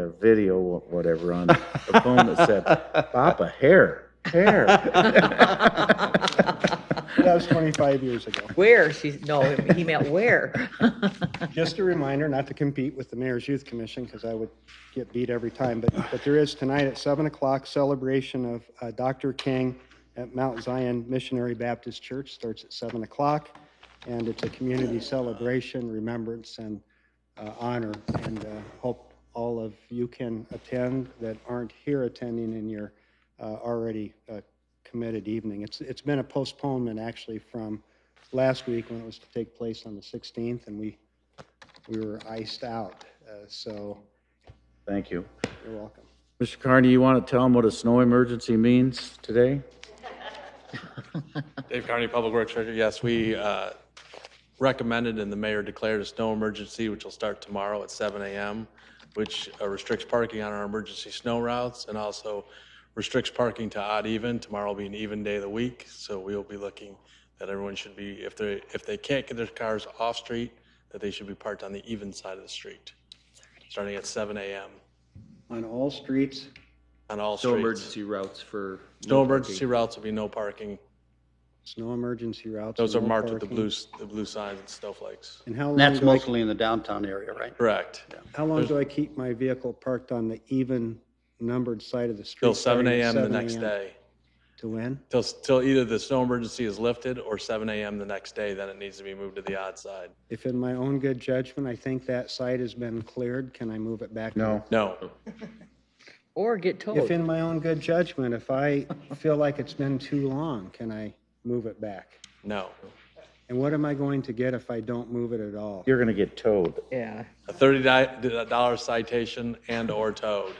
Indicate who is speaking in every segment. Speaker 1: a video, or whatever, on the phone that said, Papa, hair, hair.
Speaker 2: That was 25 years ago.
Speaker 3: Where, she's, no, he meant where.
Speaker 2: Just a reminder not to compete with the Mayor's Youth Commission because I would get beat every time. But, but there is tonight at 7 o'clock celebration of uh, Dr. King at Mount Zion Missionary Baptist Church. Starts at 7 o'clock. And it's a community celebration, remembrance, and uh, honor. And uh, hope all of you can attend that aren't here attending in your uh, already uh, committed evening. It's, it's been a postponement actually from last week when it was to take place on the 16th and we, we were iced out. Uh, So
Speaker 1: Thank you.
Speaker 2: you're welcome.
Speaker 1: Mr. Carney, you want to tell them what a snow emergency means today?
Speaker 4: Dave Carney, Public Works Director. Yes, we uh, recommended and the mayor declared a snow emergency, which will start tomorrow at 7 AM, which uh, restricts parking on our emergency snow routes and also restricts parking to odd even. Tomorrow will be an even day of the week, so we will be looking that everyone should be, if they, if they can't get their cars off-street, that they should be parked on the even side of the street, starting at 7 AM
Speaker 2: On all streets,
Speaker 4: on all
Speaker 5: No
Speaker 4: streets.
Speaker 5: emergency routes for.
Speaker 4: No emergency routes will be no parking.
Speaker 2: snow emergency routes.
Speaker 4: Those are
Speaker 2: no
Speaker 4: marked with the
Speaker 2: parking.
Speaker 4: blue, s- the blue signs and snowflakes.
Speaker 2: And how long
Speaker 6: That's
Speaker 2: do I,
Speaker 6: mostly in the downtown area, right?
Speaker 4: Correct.
Speaker 2: how long do I keep my vehicle parked on the even numbered side of the street?
Speaker 4: Till seven
Speaker 2: starting at
Speaker 4: AM the
Speaker 2: 7
Speaker 4: next
Speaker 2: a.m.
Speaker 4: day.
Speaker 2: To when?
Speaker 4: Till, till either the snow emergency is lifted or seven AM the next day, then it needs to be moved to the odd side.
Speaker 2: If in my own good judgment, I think that site has been cleared, can I move it back? to
Speaker 1: No.
Speaker 4: No,
Speaker 3: Or get
Speaker 2: If
Speaker 3: towed.
Speaker 2: in my own good judgment, if I feel like it's been too long, can I move it back?
Speaker 4: no.
Speaker 2: And what am I going to get if I don't move it at all?
Speaker 1: You're going to get towed.
Speaker 3: Yeah.
Speaker 4: A thirty dollar citation and or towed.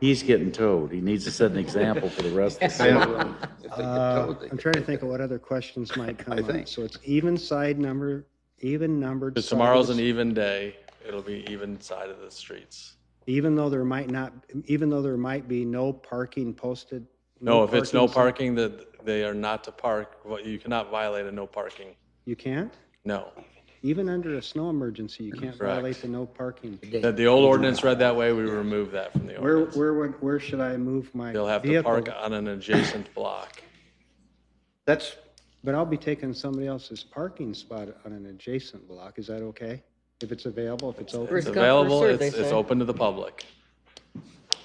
Speaker 1: He's getting towed. He needs to set an example for the rest of the city.
Speaker 5: um,
Speaker 2: Uh, I'm trying to think of what other questions might come
Speaker 6: I
Speaker 2: up.
Speaker 6: think.
Speaker 2: So it's even side number, even numbered.
Speaker 4: Because tomorrow's an e-
Speaker 2: sides,
Speaker 4: even day, it'll be even side of the streets.
Speaker 2: Even though there might not, even though there might be no parking posted.
Speaker 4: No, if it's no
Speaker 2: sign-
Speaker 4: parking, that they are not to park, well, you cannot violate a no parking.
Speaker 2: You can't?
Speaker 4: No.
Speaker 2: Even under a snow emergency, you can't
Speaker 4: Correct.
Speaker 2: violate the no parking.
Speaker 4: The, the old ordinance read that way, we remove that from the
Speaker 2: Where,
Speaker 4: ordinance.
Speaker 2: where, would- where should I move my
Speaker 4: They'll have to
Speaker 2: vehicle?
Speaker 4: park on an adjacent block.
Speaker 6: That's,
Speaker 2: But I'll be taking somebody else's parking spot on an adjacent block. Is that okay? If it's available, if it's open?
Speaker 4: It's
Speaker 3: First come, first
Speaker 4: available,
Speaker 3: served, they
Speaker 4: it's, it's
Speaker 3: say.
Speaker 4: open to the public.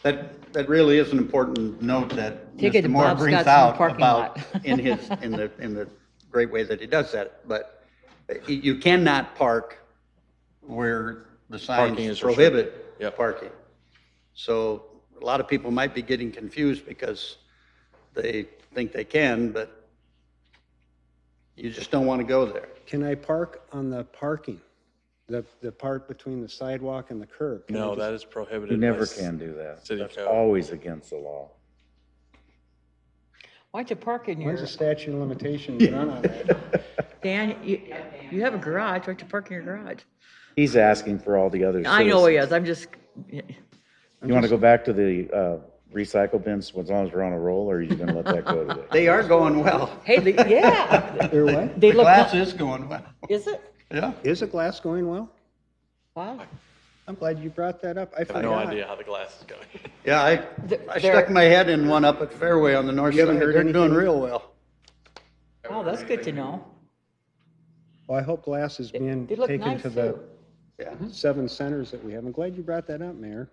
Speaker 6: that, that really is an important note that
Speaker 3: Ticket
Speaker 6: Mr.
Speaker 3: to
Speaker 6: Moore
Speaker 3: Bob's got
Speaker 6: brings
Speaker 3: some
Speaker 6: out
Speaker 3: parking
Speaker 6: about
Speaker 3: lot.
Speaker 6: in his, in the, in the great way that he does that. But you- you cannot park where the
Speaker 4: Parking
Speaker 6: signs
Speaker 4: is restricted.
Speaker 6: prohibit
Speaker 4: Yep.
Speaker 6: parking. So a lot of people might be getting confused because they think they can, but you just don't want to go there.
Speaker 2: Can I park on the parking? The, the part between the sidewalk and the curb? Can I
Speaker 4: No,
Speaker 2: just-
Speaker 4: that is prohibited.
Speaker 1: You
Speaker 4: by
Speaker 1: never
Speaker 4: s-
Speaker 1: can do that.
Speaker 4: city
Speaker 1: That's
Speaker 4: code.
Speaker 1: always against the law.
Speaker 3: Why'd you park in your,
Speaker 2: When's the statute of limitations run on that?
Speaker 3: Dan, you, you have a garage, why'd you park in your garage?
Speaker 1: He's asking for all the other
Speaker 3: I know he
Speaker 1: citizens.
Speaker 3: is, I'm just,
Speaker 1: You want to go back to the uh, recycle bins as long as we're on a roll, or are you going to let that go today?
Speaker 6: They are going well.
Speaker 3: hey, the- yeah.
Speaker 2: There what?
Speaker 3: They
Speaker 6: The
Speaker 3: look,
Speaker 6: glass is going well.
Speaker 3: is it?
Speaker 6: Yeah.
Speaker 2: Is the glass going well?
Speaker 3: Wow.
Speaker 2: I'm glad you brought that up. I
Speaker 4: I have no
Speaker 2: forgot.
Speaker 4: idea how the glass is going.
Speaker 6: Yeah, I,
Speaker 3: Th-
Speaker 6: I
Speaker 3: there-
Speaker 6: stuck my head in one up at Fairway on the north
Speaker 2: You
Speaker 6: side.
Speaker 2: haven't heard
Speaker 6: They're doing
Speaker 2: anything?
Speaker 6: real well.
Speaker 3: Wow, that's good to know.
Speaker 2: Well, I hope glass is being
Speaker 3: They look
Speaker 2: taken
Speaker 3: nice
Speaker 2: to the
Speaker 3: too.
Speaker 6: Yeah.
Speaker 2: seven centers that we have. I'm glad you brought that up, Mayor.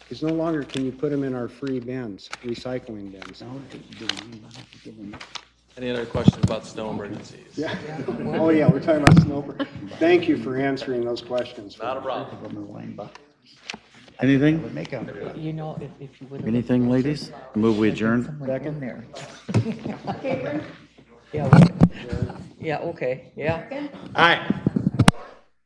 Speaker 2: Because no longer can you put them in our free bins, recycling bins.
Speaker 3: Oh,
Speaker 4: Any other questions about snow emergencies? Yeah.
Speaker 2: Oh, yeah, we're talking about snow. Thank you for answering those questions.
Speaker 4: Not a problem.
Speaker 1: Anything?
Speaker 3: You know, if, if you would have.
Speaker 1: Anything, ladies? Move we adjourn?
Speaker 3: Someone in there. Yeah, we- yeah, okay, yeah.
Speaker 2: Aye.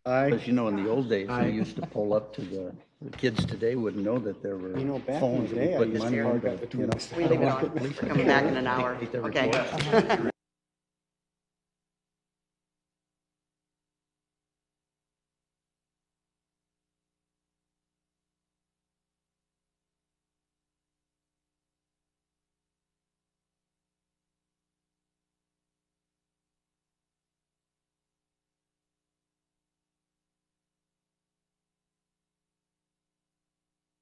Speaker 6: Because you know, in the old days, they used to pull up to the, the kids today wouldn't know that there were
Speaker 2: You know, back in the
Speaker 6: phones. that
Speaker 2: day,
Speaker 6: you
Speaker 2: I
Speaker 6: put
Speaker 2: used
Speaker 6: money
Speaker 2: to
Speaker 6: in,
Speaker 2: park
Speaker 6: but,
Speaker 2: up
Speaker 6: you
Speaker 2: between
Speaker 6: know.
Speaker 2: the
Speaker 7: We leave it on. We're coming back in an hour. Okay.